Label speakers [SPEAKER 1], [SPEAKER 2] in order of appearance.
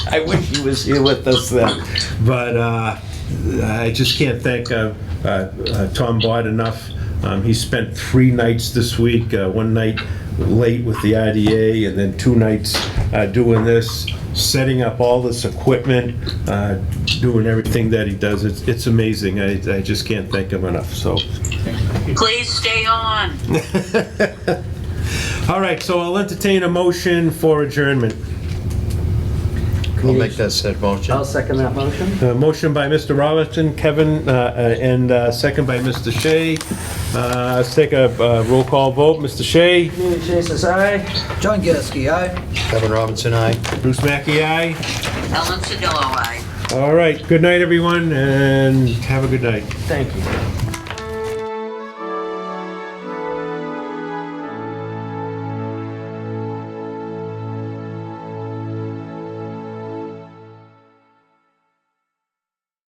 [SPEAKER 1] I wish he was here with us then.
[SPEAKER 2] But uh, I just can't thank uh, uh, uh, Tom Bott enough. Um, He spent three nights this week, uh, one night late with the IDA, and then two nights uh, doing this, setting up all this equipment, uh, doing everything that he does. It's it's amazing. I I just can't thank him enough, so.
[SPEAKER 3] Please stay on.
[SPEAKER 2] All right, so I'll entertain a motion for adjournment.
[SPEAKER 4] We'll make that said motion.
[SPEAKER 5] I'll second that motion.
[SPEAKER 2] Uh, Motion by Mr. Robinson, Kevin, uh, uh, and uh, second by Mr. Shea. Uh, Let's take a uh, roll call vote. Mr. Shea?
[SPEAKER 5] Mary Chase is aye.
[SPEAKER 6] John Gasky, aye.
[SPEAKER 4] Kevin Robinson, aye.
[SPEAKER 2] Bruce Mackey, aye.
[SPEAKER 3] Ellen Sedillo, aye.
[SPEAKER 2] All right, good night, everyone, and have a good night.
[SPEAKER 5] Thank you.